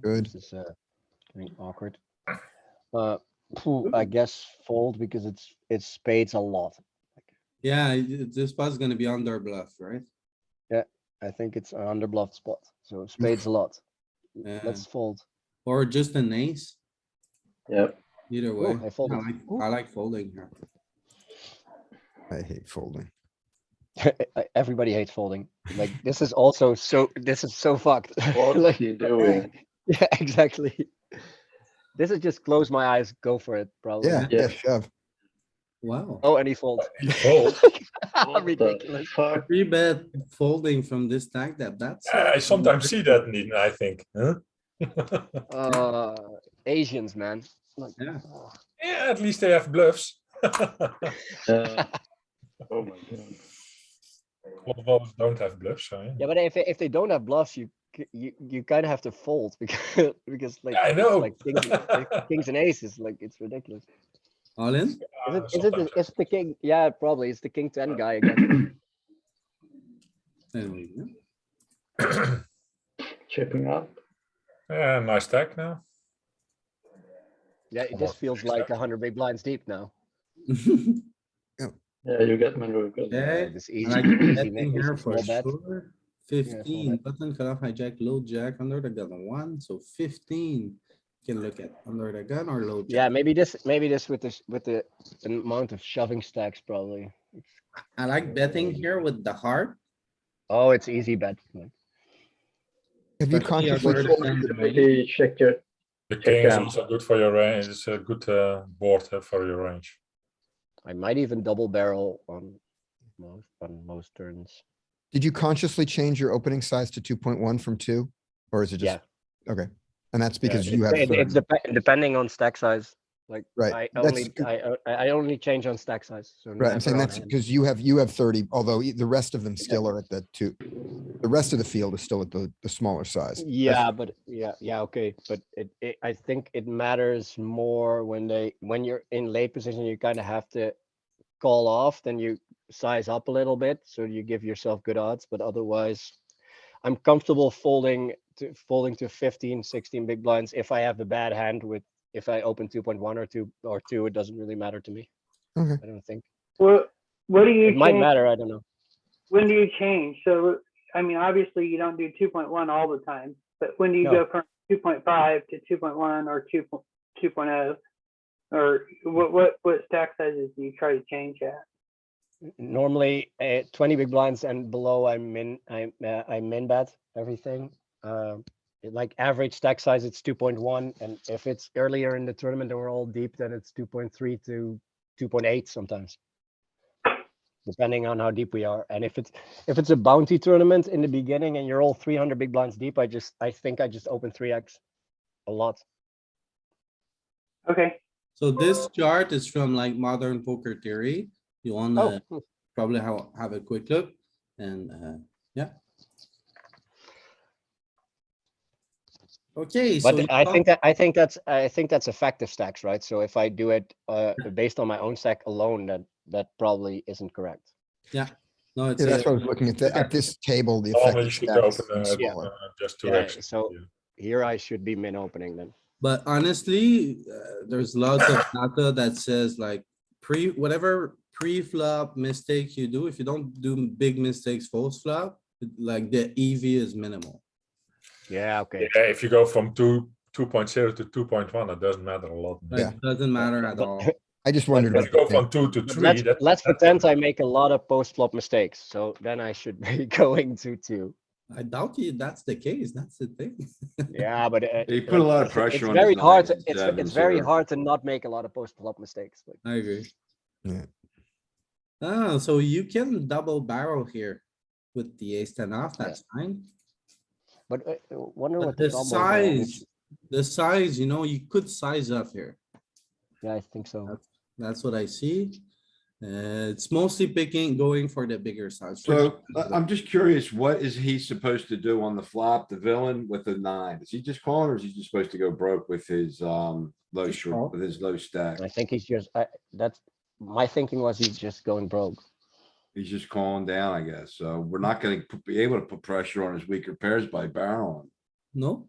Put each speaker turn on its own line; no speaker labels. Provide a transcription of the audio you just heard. Good.
This is uh, getting awkward. Uh, phew, I guess fold because it's, it's spades a lot.
Yeah, y- this spot's gonna be under bluff, right?
I think it's an under bluff spot, so spades a lot.
Yeah.
Let's fold.
Or just an ace,
Yep.
either
Ooh,
way.
I folded.
I like, I like folding here.
I hate folding.
E- Everybody hates folding. Like, this is also so, this is so fucked.
What
Like-
are you doing?
Yeah, exactly. This is just close my eyes, go for it, probably.
Yeah,
Yeah.
yeah, shove.
Wow.
Oh, and he folds.
Fold.
What the
Ridiculous.
Fuck.
Three bet folding from this stack that that's.
I sometimes see that, Nitin, I think. Huh?
Uh, Asians, man. Like,
Yeah.
oh,
yeah, at least they have bluffs. All
Uh, oh my god.
of us don't have bluffs. So, yeah.
Yeah, but if, if they don't have bluffs, you, c- you, you kind of have to fold because, because like.
I
it's
know.
Like kings, and- like kings and aces, like, it's ridiculous.
All in?
Is it,
Uh,
is it, the-
sometimes.
is it the king? Yeah, probably. It's the king ten guy again.
Then we win.
Chipping up.
yeah, nice stack now.
Yeah, it
Come on,
just feels
fix
like
that.
a hundred big blinds deep now.
Yeah, you get my real good.
Yeah.
Yeah, This
I
easy,
like
easy,
betting
ma-
here
easy
for
small bet.
sure. Fifteen, button cutoff hijack, low jack, under the gun one, so fifteen. Can look at under the gun or low
Yeah,
jack.
maybe this, maybe this with this, with the amount of shoving stacks probably.
I like betting here with the heart.
Oh, it's easy bet. like,
Have
Especially
you
under
consciously
the
folded?
gun domain.
Maybe check your.
The king is
Yeah.
also good for your range. It's a good uh, board uh, for your range.
I might even double barrel on most, on most turns.
Did you consciously change your opening size to two point one from two? Or is it just? Okay, and that's because
it-
you have,
It-
third.
It's depe- depending on stack size. Like, I
right? That's,
only, uh, I, o- I I only change on stack size. so
right, I'm saying
never on
that's
hand.
because you have, you have thirty, although e- the rest of them still are at the two. The rest of the field is still at the, the smaller size. That's-
Yeah, but yeah, yeah, okay, but it, it, I think it matters more when they, when you're in late position, you kind of have to call off, then you size up a little bit, so you give yourself good odds, but otherwise, I'm comfortable folding to folding to 15, 16 big blinds if I have a bad hand with, if I open two point one or two or two, it doesn't really matter to me.
Okay.
I don't think,
Well, what do you
it might
change?
matter, I don't know.
When do you change? So, I mean, obviously you don't do two point one all the time, but when do you
No.
go from two point five to two point one or two point two point oh? Or what, what, what stack sizes do you try to change at?
normally uh, 20 big blinds and below i'm in i'm uh, i'm in bet everything um it- like average stack size it's 2.1 and if it's earlier in the tournament and we're all deep then it's 2.3 to 2.8 sometimes depending on how deep we are and if it's if it's a bounty tournament in the beginning and you're all 300 big blinds deep i just i think i just open 3x a lot
Okay,
So this chart is from like modern poker theory. You
oh
wanna probably have, have a quick look and, uh, yeah. Okay. so you
But I
got-
think that, I think that's, I think that's effective stacks, right? So if I do it, uh, based on my own stack alone, that, that probably isn't correct.
No, it's.
Yeah, that's
a-
what I was looking at, the- at this table, the
Normally, you
effective
should
stack is
open uh,
even smaller.
uh, just two
Yeah,
X.
so- Here I should be min opening then.
But honestly, uh, there's lots of data that says like pre, whatever pre-flop mistake you do, if you don't do big mistakes false flop, like the EV is minimal.
Yeah, okay.
yeah, if you go from two. 2.0 to 2.1, it doesn't matter a lot.
Like,
Yeah.
it doesn't matter at
But-
all.
I just wondered.
If you
about
go
the thing.
from two to three,
Let's,
that-
let's
that's
pretend I make a lot of post flop mistakes, so then I should be going to two.
I doubt you, that's the case. That's the thing.
Yeah, but. uh,
He put a lot
it's-
of
it's
pressure on his
Very hard, to-
nines,
it's,
sevens,
it's very
or-
hard to not make a lot of post flop mistakes. like-
I agree.
Yeah.
Ah, so you can double barrel here with the ace ten off,
Yeah.
that's fine.
But uh, I wonder
But
what.
the
combo there is.
size, the size, you know, you could size up here.
Yeah, I think so.
That's what I see. Uh, it's mostly picking, going for the bigger size.
So I- I'm just curious, what is he supposed to do on the flop, the villain with the nine? Is he just calling or is he just supposed to go broke with his um low
Just call.
short, with his low stack?
I think he's just, I, that's, my thinking was he's just going broke.
He's just calling down, I guess. So we're not gonna p- be able to put pressure on his weaker pairs by barreling.
No,